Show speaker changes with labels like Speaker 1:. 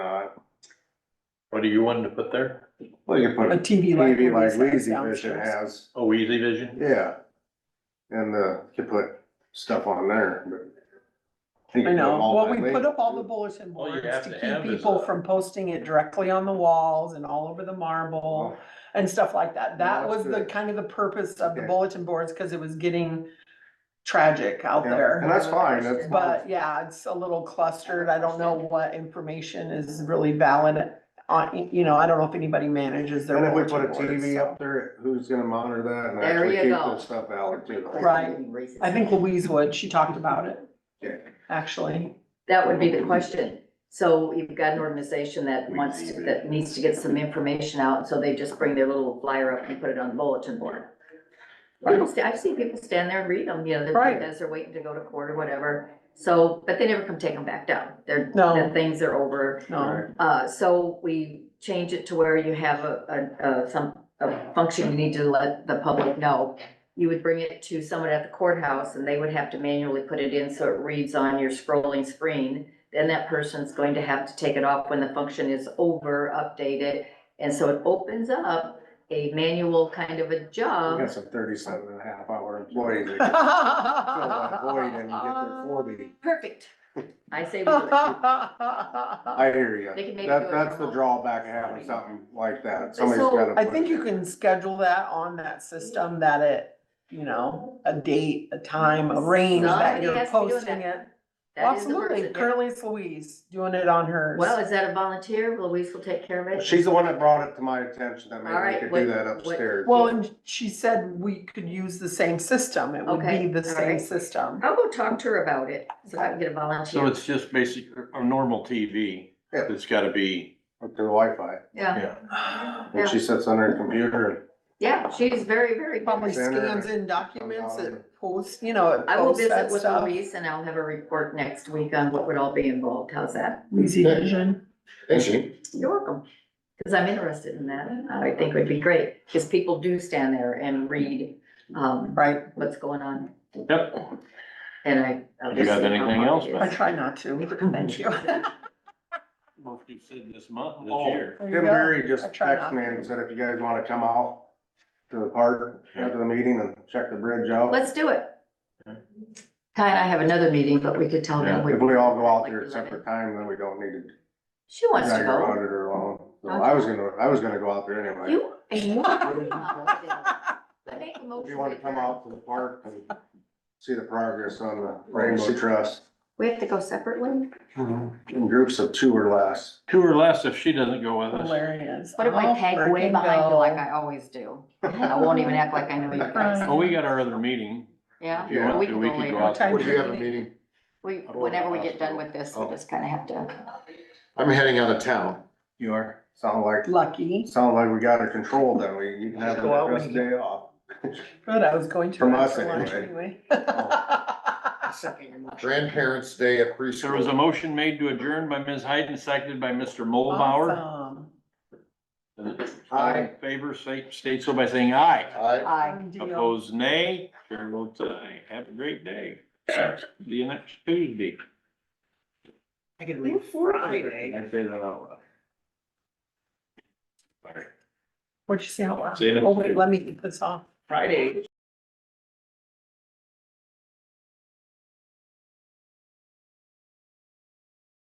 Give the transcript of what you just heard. Speaker 1: What do you want to put there?
Speaker 2: Well, you put
Speaker 3: A TV like.
Speaker 2: TV
Speaker 3: one
Speaker 2: like
Speaker 3: of these
Speaker 2: Lazy Vision
Speaker 3: downstairs.
Speaker 2: has,
Speaker 1: Oh, Easy Vision?
Speaker 2: yeah. And, uh, you put stuff on there, but. think
Speaker 3: I
Speaker 2: you
Speaker 3: know,
Speaker 2: put all
Speaker 3: well,
Speaker 2: that
Speaker 3: we
Speaker 2: link
Speaker 3: put up all
Speaker 2: too.
Speaker 3: the bulletin
Speaker 1: All you
Speaker 3: boards
Speaker 1: have
Speaker 3: to
Speaker 1: to have
Speaker 3: keep
Speaker 1: is
Speaker 3: people
Speaker 1: a-
Speaker 3: from posting it directly on the walls and all over the marble and stuff like that. That
Speaker 2: that's
Speaker 3: was the
Speaker 2: good.
Speaker 3: kind of the purpose of the
Speaker 2: Okay.
Speaker 3: bulletin boards, cause it was getting tragic out
Speaker 2: Yeah, And
Speaker 3: there.
Speaker 2: that's fine, that's.
Speaker 3: But yeah, it's a little clustered. I don't know what information is really valid on, you know, I don't know if anybody manages their
Speaker 2: And if we
Speaker 3: bulletin
Speaker 2: put a
Speaker 3: boards.
Speaker 2: TV
Speaker 3: so.
Speaker 2: up there, who's gonna monitor that and
Speaker 4: There
Speaker 2: actually
Speaker 4: you
Speaker 2: keep
Speaker 4: go.
Speaker 2: this stuff out too?
Speaker 3: Right. I think Louise would, she talked about it,
Speaker 2: Yeah.
Speaker 3: actually.
Speaker 4: That would be the question. So you've got an organization that wants, to- that needs to get some information out, so they just bring their little flyer up and put it on the bulletin board. People sta- I've seen people stand there and read them, you know,
Speaker 3: Right.
Speaker 4: they're- as they're waiting to go to court or whatever. So, but they never come take them back down. They're,
Speaker 3: No.
Speaker 4: the things are over.
Speaker 3: No,
Speaker 4: Uh, so we change it to where you have a, a, a, some, a function you need to let the public know. You would bring it to someone at the courthouse and they would have to manually put it in so it reads on your scrolling screen. Then that person's going to have to take it off when the function is over, update it. And so it opens up a manual kind of a
Speaker 2: We
Speaker 4: job.
Speaker 2: got some thirty-seven and a half hour employees that can fill that void and get
Speaker 3: Uh,
Speaker 2: their forty.
Speaker 4: Perfect. I say we do it.
Speaker 3: I
Speaker 2: I hear you.
Speaker 4: They can maybe do
Speaker 2: That,
Speaker 4: it
Speaker 2: that's the
Speaker 4: remote.
Speaker 2: drawback of having something like that. Somebody's gotta. put
Speaker 3: think
Speaker 2: it.
Speaker 3: you can schedule that on that system that it, you know, a date, a time, a range that
Speaker 4: Somebody
Speaker 3: you're
Speaker 4: has to be doing
Speaker 3: posting
Speaker 4: that.
Speaker 3: it.
Speaker 4: That is the
Speaker 3: Absolutely,
Speaker 4: person, yeah.
Speaker 3: currently it's Louise doing it on hers.
Speaker 4: Well, is that a volunteer? Louise will take care of it.
Speaker 2: She's the one that brought it to my attention that
Speaker 4: All
Speaker 2: maybe
Speaker 4: right,
Speaker 2: we could
Speaker 4: what-
Speaker 2: do that
Speaker 4: what-
Speaker 2: upstairs.
Speaker 3: Well, and she said we could use the same system, it would be
Speaker 4: Okay,
Speaker 3: the
Speaker 4: all
Speaker 3: same
Speaker 4: right.
Speaker 3: system.
Speaker 4: I'll go talk to her about it, so I can get a
Speaker 1: So
Speaker 4: volunteer.
Speaker 1: it's just basic, a normal TV.
Speaker 2: Yeah.
Speaker 1: It's gotta be,
Speaker 2: With their Wi-Fi.
Speaker 4: Yeah,
Speaker 1: yeah.
Speaker 4: Yeah.
Speaker 2: And she sits on her computer and.
Speaker 4: yeah, she's very, very
Speaker 3: Probably
Speaker 4: good.
Speaker 2: Send her
Speaker 3: scans in documents,
Speaker 2: online.
Speaker 3: it posts, you know, it
Speaker 4: I will
Speaker 3: posts
Speaker 4: visit
Speaker 3: that
Speaker 4: with
Speaker 3: stuff.
Speaker 4: Louise and I'll have a report next week on what would all be involved. How's that?
Speaker 3: Easy vision.
Speaker 2: Is she?
Speaker 4: You're welcome. Cause I'm interested in that. I think would be great, cause people do stand there and read, um,
Speaker 3: Right,
Speaker 4: what's going on.
Speaker 1: Yep.
Speaker 4: And I. I'll
Speaker 1: You
Speaker 4: just
Speaker 1: got
Speaker 4: see how
Speaker 1: anything
Speaker 4: hard it
Speaker 1: else,
Speaker 4: is.
Speaker 3: I try not to.
Speaker 4: Thank you.
Speaker 1: Well, you said this month,
Speaker 2: Oh.
Speaker 1: this year.
Speaker 3: There you
Speaker 2: Tim
Speaker 3: go.
Speaker 2: Berry
Speaker 3: I
Speaker 2: just
Speaker 3: try not
Speaker 2: texted me and
Speaker 3: to.
Speaker 2: said if you guys wanna come out to the park after the meeting and check the bridge out.
Speaker 4: Let's do it. Ty and I have another meeting, but we could tell them.
Speaker 2: If we all go out there at separate time, then we don't need to
Speaker 4: She wants to
Speaker 2: drag our
Speaker 4: go.
Speaker 2: auditor along. So I was gonna, I was gonna go out there anyway.
Speaker 4: You. I
Speaker 3: Well,
Speaker 4: make a
Speaker 2: If
Speaker 4: motion.
Speaker 2: you wanna
Speaker 4: to
Speaker 2: come
Speaker 4: adjourn.
Speaker 2: out to the park and see the progress on the Rainbow Trust,
Speaker 4: We have to go separately?
Speaker 5: Mm-hmm.
Speaker 2: in groups of two or less.
Speaker 1: Two or less if she doesn't go with us.
Speaker 3: Hilarious.
Speaker 4: What if I
Speaker 3: I'll
Speaker 4: tag way
Speaker 3: freaking
Speaker 4: behind you
Speaker 3: go.
Speaker 4: like I always do? I won't even act like I know you guys,
Speaker 1: Well, Oh, we got our other meeting.
Speaker 4: yeah?
Speaker 1: If you want
Speaker 4: We
Speaker 1: to,
Speaker 4: can
Speaker 1: we
Speaker 4: go
Speaker 1: could
Speaker 4: later.
Speaker 1: go
Speaker 3: What
Speaker 1: out. Oh.
Speaker 3: time
Speaker 5: Would you
Speaker 3: is
Speaker 5: have a
Speaker 3: it?
Speaker 5: meeting?
Speaker 4: We, whenever we get done with this, we just kinda have to,
Speaker 5: I'm heading out of town.
Speaker 1: You are.
Speaker 2: Sound like,
Speaker 3: Lucky,
Speaker 2: sound like we got it controlled then. We, you can have the
Speaker 3: Go out
Speaker 2: rest
Speaker 3: when you-
Speaker 2: day off.
Speaker 3: good, I was going to.
Speaker 2: From
Speaker 3: ask
Speaker 2: us
Speaker 3: for lunch
Speaker 2: anyway.
Speaker 5: Grandparents' Day at
Speaker 1: There was a
Speaker 5: preschool.
Speaker 1: motion made to adjourn by Ms. Hayden, seconded by Mr. Mulbauer.
Speaker 3: Awesome.
Speaker 1: All in favor, say, state so by saying aye.
Speaker 5: I,
Speaker 4: I,
Speaker 3: Done deal.
Speaker 1: Opposed, nay. Chair votes aye. Have a great day. See you next Tuesday.
Speaker 3: I could leave Friday.
Speaker 1: I say that out loud. Sorry.
Speaker 3: What'd you say out loud?
Speaker 1: See you next
Speaker 3: Oh, wait,
Speaker 1: Tuesday.
Speaker 3: let me get this off. Friday.